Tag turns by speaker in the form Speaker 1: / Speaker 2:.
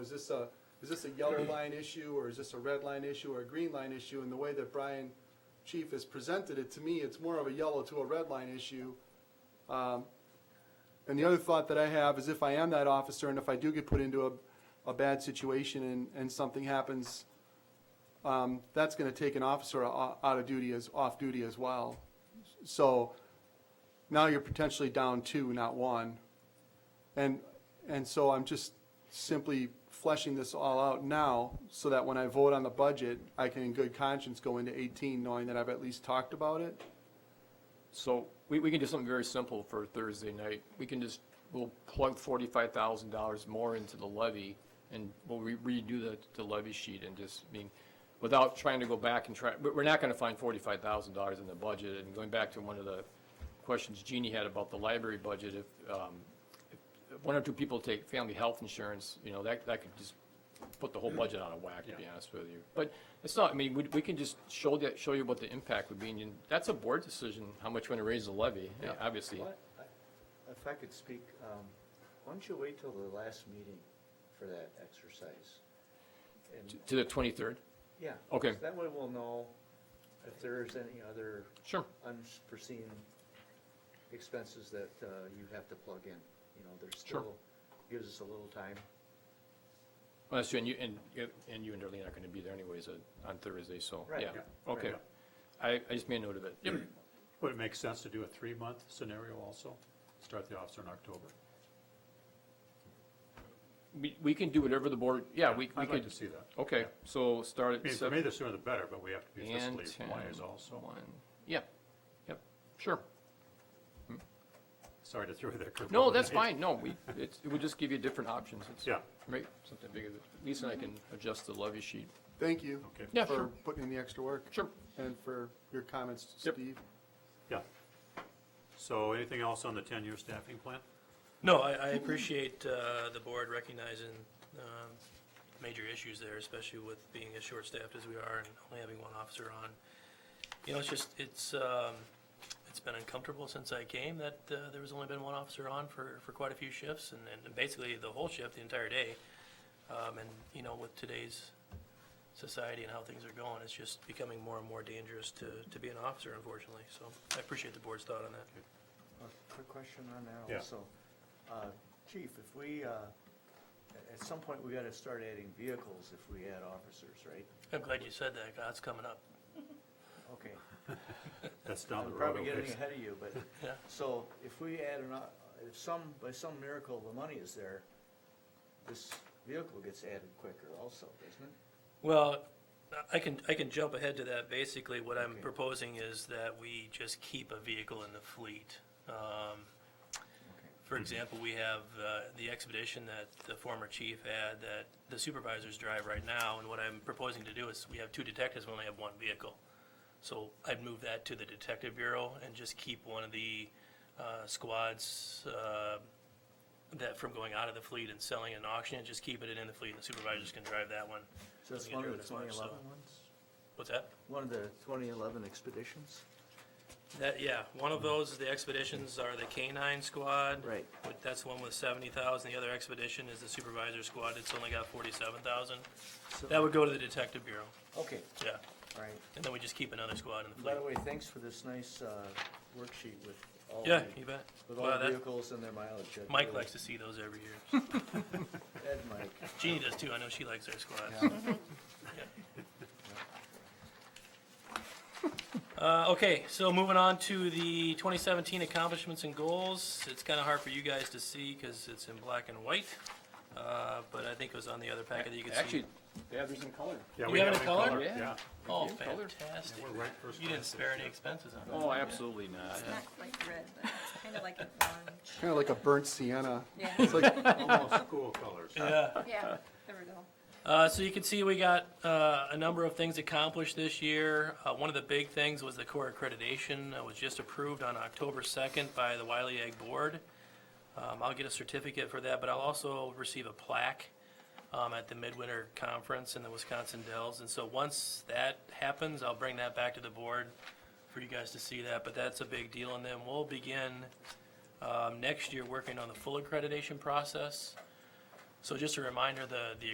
Speaker 1: Is this a, is this a yellow line issue, or is this a red line issue, or a green line issue? And the way that Brian Chief has presented it, to me, it's more of a yellow to a red line issue. Um, And the other thought that I have is if I am that officer, and if I do get put into a, a bad situation and, and something happens, um, that's gonna take an officer o- out of duty as, off duty as well. So now you're potentially down two, not one. And, and so I'm just simply fleshing this all out now so that when I vote on the budget, I can in good conscience go into 18 knowing that I've at least talked about it.
Speaker 2: So we, we can do something very simple for Thursday night. We can just, we'll plug forty-five thousand dollars more into the levy and we'll re- redo the, the levy sheet and just, I mean, without trying to go back and try, but we're not gonna find forty-five thousand dollars in the budget. And going back to one of the questions Jeannie had about the library budget, if, um, if one or two people take family health insurance, you know, that, that could just put the whole budget out of whack, to be honest with you. But it's not, I mean, we, we can just show that, show you what the impact would be, and you- that's a board decision, how much you want to raise the levy, eh, obviously.
Speaker 3: What- I- If I could speak, um, why don't you wait till the last meeting for that exercise? And,
Speaker 2: To the twenty-third?
Speaker 3: yeah.
Speaker 2: Okay.
Speaker 3: so That way we'll know if there's any other
Speaker 2: Sure.
Speaker 3: unforeseen expenses that uh, you have to plug in. You know, there's
Speaker 2: Sure.
Speaker 3: still, gives us a little time.
Speaker 2: Well, that's true, and you, and, you- and you and Darlene are going to be there anyways uh, on Thursday, so,
Speaker 3: Right,
Speaker 2: yeah,
Speaker 3: yeah,
Speaker 2: okay.
Speaker 4: right.
Speaker 2: I, I just made note of it.
Speaker 4: Would it make sense to do a three-month scenario also? Start the officer in October?
Speaker 2: We, we can do whatever the board, yeah, we, we
Speaker 4: I'd like
Speaker 2: could,
Speaker 4: to see that.
Speaker 2: okay, so start
Speaker 4: I
Speaker 2: at
Speaker 4: mean, for me,
Speaker 2: seven
Speaker 4: the sooner the better, but we have to be
Speaker 2: and
Speaker 4: fiscally
Speaker 2: ten.
Speaker 4: wise also.
Speaker 2: One, yeah, yep, sure.
Speaker 4: Sorry to throw you there. curveball,
Speaker 2: No,
Speaker 4: but
Speaker 2: that's
Speaker 4: it-
Speaker 2: fine, no, we, it's, it would just give you different options. It's-
Speaker 4: Yeah,
Speaker 2: Right, something bigger. Lisa and I can adjust the levy sheet.
Speaker 1: Thank you.
Speaker 4: Okay.
Speaker 2: Yeah,
Speaker 1: For
Speaker 2: sure.
Speaker 1: putting in the extra work.
Speaker 2: Sure.
Speaker 1: And for your comments,
Speaker 2: Yep.
Speaker 1: Steve.
Speaker 4: yeah. So anything else on the ten-year staffing plan?
Speaker 5: No, I, I appreciate, uh, the board recognizing, um, major issues there, especially with being as short-staffed as we are and only having one officer on. You know, it's just, it's, um, it's been uncomfortable since I came that, uh, there was only been one officer on for, for quite a few shifts and, and basically the whole shift, the entire day. Um, and, you know, with today's society and how things are going, it's just becoming more and more dangerous to, to be an officer unfortunately. So I appreciate the board's thought on that.
Speaker 3: A Quick question on that
Speaker 4: Yeah.
Speaker 3: also. Uh, Chief, if we, uh, a- at some point, we got to start adding vehicles if we add officers, right?
Speaker 5: I'm glad you said that, 'cause that's coming up.
Speaker 3: Okay.
Speaker 4: That's
Speaker 3: I'm
Speaker 4: down the road.
Speaker 3: probably
Speaker 4: a
Speaker 3: getting
Speaker 4: ways.
Speaker 3: ahead of you, but,
Speaker 5: Yeah.
Speaker 3: so if we add an, o- if some, by some miracle, the money is there, this vehicle gets added quicker also, doesn't it?
Speaker 5: Well, I can, I can jump ahead to that. Basically, what I'm
Speaker 3: Okay.
Speaker 5: proposing is that we just keep a vehicle in the fleet. Um, For example, we have uh, the expedition that the former chief had that the supervisors drive right now. And what I'm proposing to do is, we have two detectives, we only have one vehicle. So I'd move that to the detective bureau and just keep one of the uh, squads uh, that from going out of the fleet and selling and auctioning, just keeping it in the fleet. and The supervisors can drive that one.
Speaker 3: So it's
Speaker 5: Doesn't get
Speaker 3: one of the
Speaker 5: driven as much,
Speaker 3: twenty
Speaker 5: so-
Speaker 3: eleven ones?
Speaker 5: What's that?
Speaker 3: One of the twenty eleven expeditions?
Speaker 5: That, yeah, one of those, the expeditions are the K-9 squad.
Speaker 3: Right.
Speaker 5: But that's the one with seventy thousand, the other expedition is the supervisor squad, it's only got forty-seven thousand.
Speaker 3: So-
Speaker 5: That would go to the detective bureau,
Speaker 3: Okay,
Speaker 5: yeah,
Speaker 3: all right.
Speaker 5: and then we just keep another squad in the
Speaker 3: By
Speaker 5: fleet.
Speaker 3: the way, thanks for this nice, uh, worksheet with all
Speaker 5: Yeah,
Speaker 3: the,
Speaker 5: you bet.
Speaker 3: with
Speaker 5: Wow,
Speaker 3: all the
Speaker 5: that-
Speaker 3: vehicles and their mileage. That
Speaker 5: Mike
Speaker 3: really-
Speaker 5: likes to see those every year.
Speaker 3: Ed, Mike.
Speaker 5: Jeannie does too, I know she likes her squads. Uh, okay, so moving on to the twenty seventeen accomplishments and goals. It's kinda hard for you guys to see, cause it's in black and white. Uh, but I think it was on the other packet that you could see.
Speaker 2: Actually, yeah, there's in color.
Speaker 4: Yeah,
Speaker 5: You
Speaker 4: we
Speaker 5: have
Speaker 4: have
Speaker 5: it
Speaker 4: it
Speaker 5: in color?
Speaker 2: Yeah.
Speaker 4: Yeah.
Speaker 5: Oh,
Speaker 2: Yeah, color.
Speaker 5: fantastic.
Speaker 4: We're right first
Speaker 5: You didn't
Speaker 4: class
Speaker 5: spare
Speaker 4: this
Speaker 5: any
Speaker 4: year.
Speaker 5: expenses on that.
Speaker 2: Oh, absolutely not.
Speaker 6: It's not quite red, but it's kind of like an orange.
Speaker 1: Kind of like a burnt sienna.
Speaker 6: Yeah,
Speaker 1: It's like,
Speaker 4: Almost Oh, school colors.
Speaker 5: Yeah.
Speaker 6: yeah, there we go.
Speaker 5: Uh, so you can see we got, uh, a number of things accomplished this year. Uh, one of the big things was the core accreditation that was just approved on October second by the Wiley Ag Board. Um, I'll get a certificate for that, but I'll also receive a plaque, um, at the Midwinter Conference in the Wisconsin Dells. And so once that happens, I'll bring that back to the board for you guys to see that, but that's a big deal. And then we'll begin, um, next year working on the full accreditation process. So just a reminder, the, the